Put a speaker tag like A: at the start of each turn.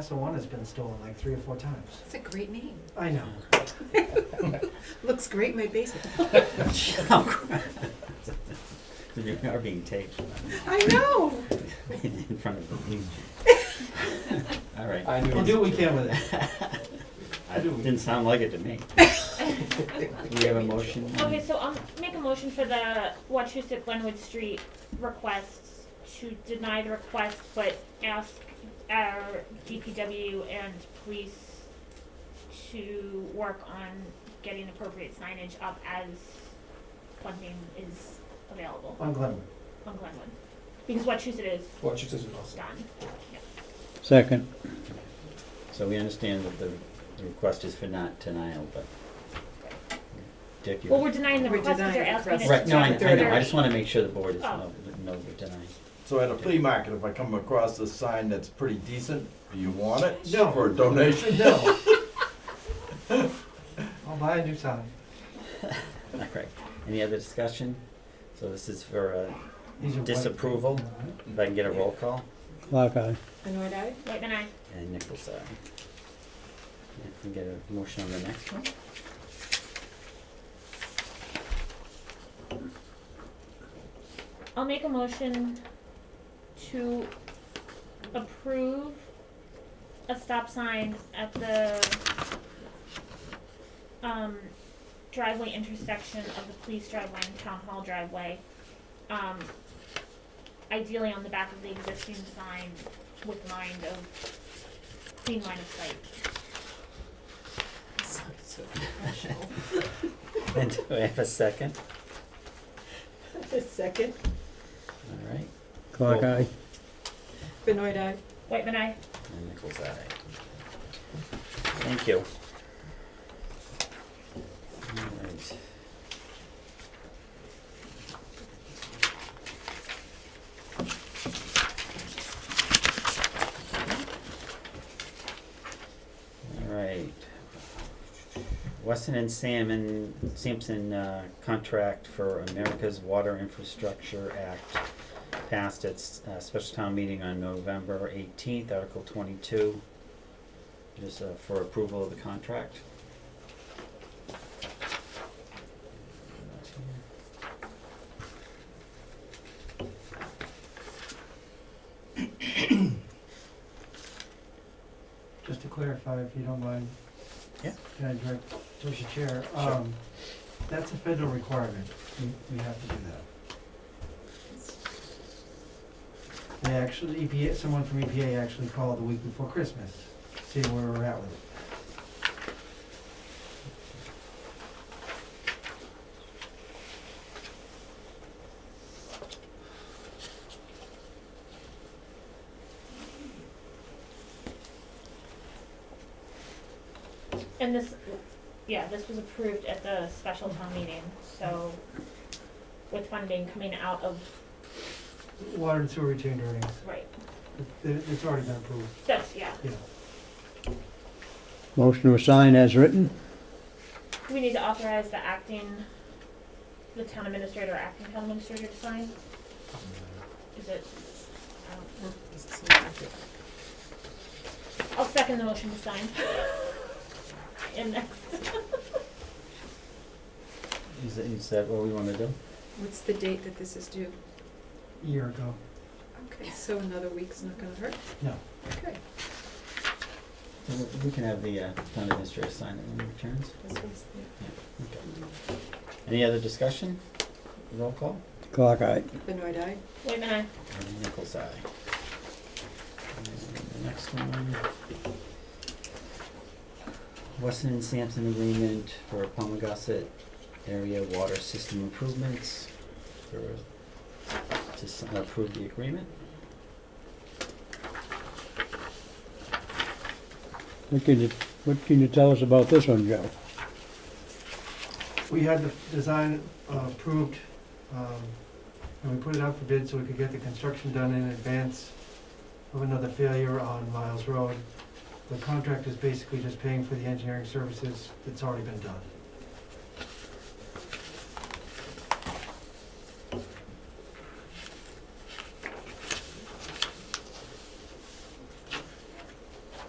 A: Cassawanas been stolen like three or four times.
B: It's a great name.
A: I know.
B: Looks great in my basement.
C: You are being taped
B: I know.
C: in front of you. All right.
D: I knew.
A: We'll
D: it.
A: do what we can with it.
C: I Didn't sound like it to me. Do we have a motion?
E: Okay, so I'll make a motion for the Wachusett Glenwood Street requests to deny the request, but ask our DPW and police to work on getting appropriate signage up as funding is available
A: On Glenwood.
E: on Glenwood. Because Wachusett is
D: Watch it as it goes.
E: done.
F: Second.
C: So we understand that the the request is for not denial, but. Dick, you.
E: Well, we're denying the
B: We're
E: request because they're
B: denying the
E: asking us
B: request.
C: Right, no,
E: to.
C: I I know, I
E: they're-
C: just wanna make sure the board is,
E: Oh.
C: no, no, we're denying.
G: So at a flea market, if I come across a sign that's pretty decent, do you want it?
A: No.
G: For a donation?
A: No. I'll buy a new sign.
C: All right, any other discussion? So this is for, uh,
A: These are white.
C: Disapproval. if I can get a roll call,
F: Clock eye.
B: Benoit eye?
E: Wait, then I,
C: and Nichols, aye. I can get a motion on the next one.
E: I'll make a motion to approve a stop sign at the um driveway intersection of the police driveway and town hall driveway. Um ideally on the back of the existing sign with mind of clean line of sight.
B: Sounds so professional.
C: And do I have a second?
B: A second.
C: All right,
F: Clock
C: Well-
F: eye.
B: Benoit eye?
E: Whitman, I
C: and Nichols, aye. Thank you. All right. All right. Weston and Salmon, Sampson, uh, contract for America's Water Infrastructure Act passed its, uh, special town meeting on November eighteenth, Article twenty-two. Just, uh, for approval of the contract.
A: Just to clarify, if you don't mind.
C: Yeah.
A: Can I direct towards the chair? Um, That's a federal requirement. We- We have to do that. They actually, EPA, someone from EPA actually called the week before Christmas, seeing where we're at with it.
E: And this, yeah, this was approved at the special town meeting, so with funding coming out of,
A: Water and sewer retained earnings.
E: right,
A: It- it- It's already been approved,
E: that's, yeah.
A: yeah.
F: Motion to sign as written.
E: We need to authorize the acting, the town administrator, or acting town administrator to sign? Is it, I don't- I'll second the motion to sign. And next,
C: Is that, is that what we wanna do?
B: What's the date that this is due?
A: A year ago.
B: Okay, so another week's not gonna hurt?
A: No.
B: Okay,
C: We- We can have the, uh, town administrator sign it when he returns.
B: this was the
C: Any other discussion? Roll call?
F: Clock eye.
B: Benoit eye?
E: wait a minute,
C: And Nichols, aye. And The next one. Weston and Sampson agreement for Palmagussit area water system improvements. for- To s- approve the agreement.
F: What can you, what can you tell us about this one, Joe?
A: We had the design uh, approved, um, and we put it out for bid so we could get the construction done in advance of another failure on Miles Road. The contract is basically just paying for the engineering services that's already been done.